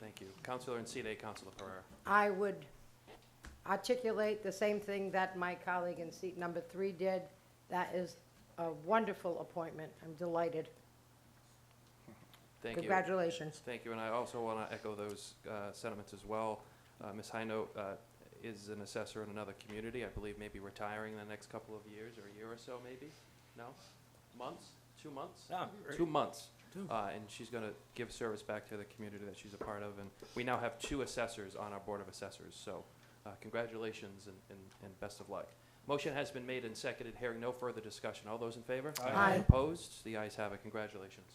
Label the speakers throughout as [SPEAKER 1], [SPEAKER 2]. [SPEAKER 1] Thank you. Counselor Encino, Counselor Pereira.
[SPEAKER 2] I would articulate the same thing that my colleague in seat number three did. That is a wonderful appointment. I'm delighted.
[SPEAKER 1] Thank you.
[SPEAKER 2] Congratulations.
[SPEAKER 1] Thank you, and I also want to echo those uh, sentiments as well. Uh, Ms. Hino uh, is an assessor in another community, I believe maybe retiring in the next couple of years, or a year or so maybe? No? Months? Two months? Two months. Uh, And she's going to give service back to the community that she's a part of, and we now have two assessors on our Board of Assessors, so uh, congratulations and- and and best of luck. Motion has been made and seconded, hearing no further discussion. All those in favor?
[SPEAKER 3] Aye.
[SPEAKER 2] Aye.
[SPEAKER 1] Opposed? The ayes have it. Congratulations.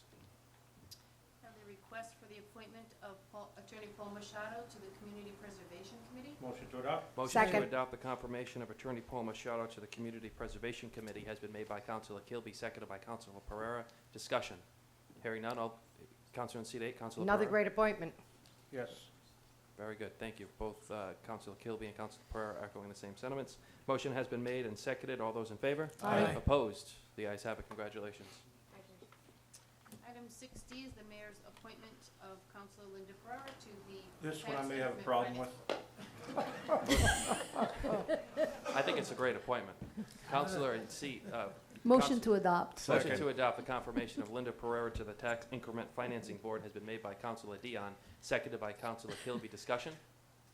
[SPEAKER 4] Now the request for the appointment of Paul- Attorney Paul Machado to the Community Preservation Committee.
[SPEAKER 3] Motion to adopt?
[SPEAKER 1] Motion to
[SPEAKER 2] Second.
[SPEAKER 1] adopt the confirmation of Attorney Paul Machado to the Community Preservation Committee has been made by Counselor Kilby, seconded by Counselor Pereira. Discussion. Hearing none, all, Counselor in seat eight, Counselor Pereira.
[SPEAKER 2] Another great appointment.
[SPEAKER 3] Yes.
[SPEAKER 1] Very good, thank you. Both uh, Counselor Kilby and Counselor Pereira echoing the same sentiments. Motion has been made and seconded. All those in favor?
[SPEAKER 3] Aye. Aye.
[SPEAKER 1] Opposed? The ayes have it. Congratulations.
[SPEAKER 4] Item six D is the mayor's appointment of Counselor Linda Ferrara to the.
[SPEAKER 3] This one I
[SPEAKER 4] Tax
[SPEAKER 3] may have a
[SPEAKER 4] Increment
[SPEAKER 3] problem with.
[SPEAKER 4] Finance-
[SPEAKER 1] I think it's a great appointment. Counselor in seat, uh,
[SPEAKER 5] Motion
[SPEAKER 1] Counsel-
[SPEAKER 5] to adopt.
[SPEAKER 1] Motion
[SPEAKER 3] Second.
[SPEAKER 1] to adopt the confirmation of Linda Pereira to the Tax Increment Financing Board has been made by Counselor Dion, seconded by Counselor Kilby. Discussion?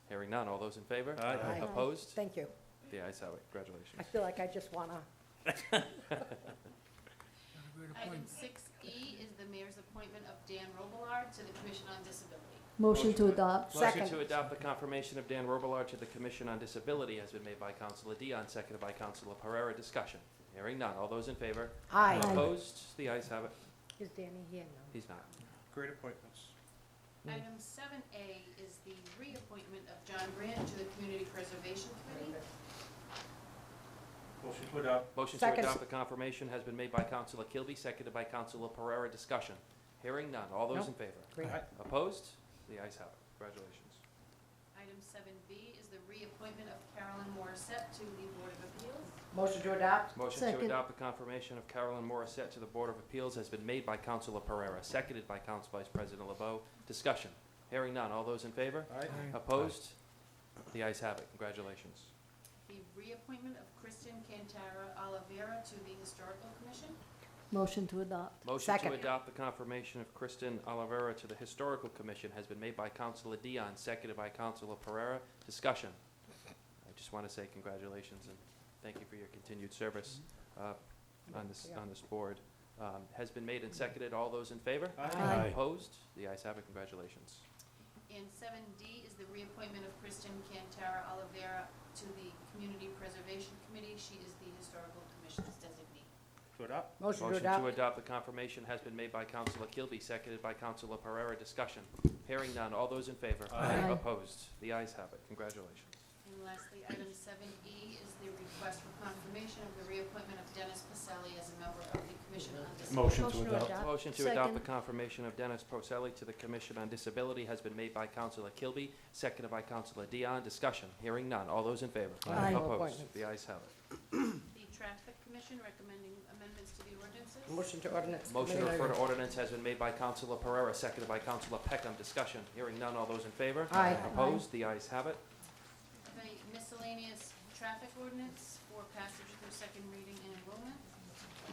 [SPEAKER 1] Hearing none. All those in favor?
[SPEAKER 3] Aye.
[SPEAKER 2] Aye.
[SPEAKER 1] Opposed?
[SPEAKER 2] Thank you.
[SPEAKER 1] The ayes have it.
[SPEAKER 2] I
[SPEAKER 1] Congratulations.
[SPEAKER 2] feel like I just want to,
[SPEAKER 4] Item six E is the mayor's appointment of Dan Robillard to the Commission on Disability.
[SPEAKER 5] Motion to
[SPEAKER 3] Motion.
[SPEAKER 5] adopt.
[SPEAKER 1] Motion
[SPEAKER 2] Second.
[SPEAKER 1] to adopt the confirmation of Dan Robillard to the Commission on Disability has been made by Counselor Dion, seconded by Counselor Pereira. Discussion? Hearing none. All those in favor?
[SPEAKER 2] aye.
[SPEAKER 1] Opposed? The ayes have it.
[SPEAKER 2] Is Danny here now?
[SPEAKER 1] He's not.
[SPEAKER 3] Great appointments. Hmm.
[SPEAKER 4] Item seven A is the reappointment of John Grant to the Community Preservation Committee.
[SPEAKER 3] Motion to adopt?
[SPEAKER 1] Motion to
[SPEAKER 2] Second.
[SPEAKER 1] adopt the confirmation has been made by Counselor Kilby, seconded by Counselor Pereira. Discussion? Hearing none. All those
[SPEAKER 2] Nope.
[SPEAKER 1] in favor?
[SPEAKER 2] Great.
[SPEAKER 3] Aye.
[SPEAKER 1] Opposed? The ayes have it. Congratulations.
[SPEAKER 4] Item seven B is the reappointment of Carolyn Morissette to the Board of Appeals.
[SPEAKER 2] Motion to adopt?
[SPEAKER 1] Motion to
[SPEAKER 5] Second.
[SPEAKER 1] adopt the confirmation of Carolyn Morissette to the Board of Appeals has been made by Counselor Pereira, seconded by Council Vice President LeBeau. Discussion. Hearing none. All those in favor?
[SPEAKER 3] Aye.
[SPEAKER 1] Opposed? The ayes have it. Congratulations.
[SPEAKER 4] The reappointment of Kristen Cantara Oliveira to the Historical Commission.
[SPEAKER 5] Motion to adopt.
[SPEAKER 1] Motion to
[SPEAKER 2] Second.
[SPEAKER 1] adopt the confirmation of Kristen Olivera to the Historical Commission has been made by Counselor Dion, seconded by Counselor Pereira. Discussion. I just want to say congratulations and thank you for your continued service uh, on this, on this board. Um, Has been made and seconded. All those in favor?
[SPEAKER 2] Aye.
[SPEAKER 1] Opposed? The ayes have it. Congratulations.
[SPEAKER 4] And seven D is the reappointment of Kristen Cantara Oliveira to the Community Preservation Committee. She is the Historical Commission's designee.
[SPEAKER 3] To adopt?
[SPEAKER 2] Motion to
[SPEAKER 1] Motion to
[SPEAKER 2] adopt?
[SPEAKER 1] adopt the confirmation has been made by Counselor Kilby, seconded by Counselor Pereira. Discussion. Hearing none. All those in favor?
[SPEAKER 3] Aye.
[SPEAKER 5] Aye.
[SPEAKER 1] Opposed? The ayes have it. Congratulations.
[SPEAKER 4] And lastly, item seven E is the request for confirmation of the reappointment of Dennis Pacelli as a member of the Commission on Disability.
[SPEAKER 3] Motion to adopt?
[SPEAKER 1] Motion to adopt the
[SPEAKER 5] Second.
[SPEAKER 1] confirmation of Dennis Porcelli to the Commission on Disability has been made by Counselor Kilby, seconded by Counselor Dion. Discussion, hearing none. All those in favor?
[SPEAKER 2] Aye.
[SPEAKER 1] Opposed?
[SPEAKER 2] Appointments.
[SPEAKER 1] The ayes have it.
[SPEAKER 4] The Traffic Commission recommending amendments to the ordinances.
[SPEAKER 2] Motion to ordinance?
[SPEAKER 1] Motion to
[SPEAKER 2] committee?
[SPEAKER 1] refer to ordinance has been made by Counselor Pereira, seconded by Counselor Peckham. Discussion, hearing none. All those in favor?
[SPEAKER 2] Aye.
[SPEAKER 1] Opposed? The ayes have it.
[SPEAKER 4] The miscellaneous traffic ordinance for passage through second reading and enrollment.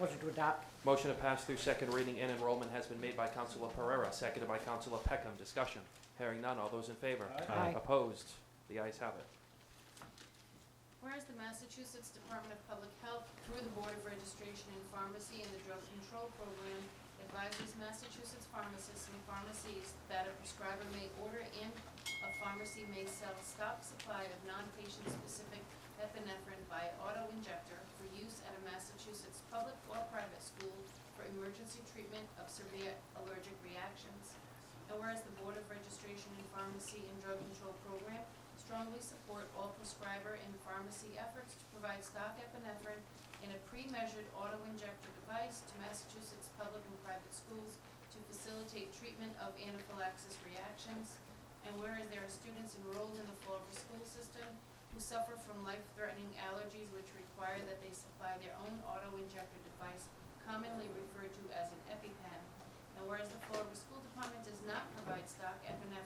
[SPEAKER 2] Motion to adopt?
[SPEAKER 1] Motion to pass through second reading and enrollment has been made by Counselor Pereira, seconded by Counselor Peckham. Discussion, hearing none. All those in favor?
[SPEAKER 3] Aye.
[SPEAKER 2] Aye.
[SPEAKER 1] Opposed? The ayes have it.
[SPEAKER 4] Whereas the Massachusetts Department of Public Health, through the Board of Registration in Pharmacy and the Drug Control Program, advises Massachusetts pharmacists and pharmacies that a prescriber may order and a pharmacy may sell stock supply of non-patient specific epinephrine by auto injector for use at a Massachusetts public or private school for emergency treatment of severe allergic reactions. And whereas the Board of Registration in Pharmacy and Drug Control Program strongly support all prescriber and pharmacy efforts to provide stock epinephrine in a pre-measured auto-injector device to Massachusetts public and private schools to facilitate treatment of anaphylaxis reactions. And whereas there are students enrolled in the Fall River School System who suffer from life-threatening allergies which require that they supply their own auto-injector device commonly referred to as an EpiPen. And whereas the Fall River School Department does not provide stock epinephrine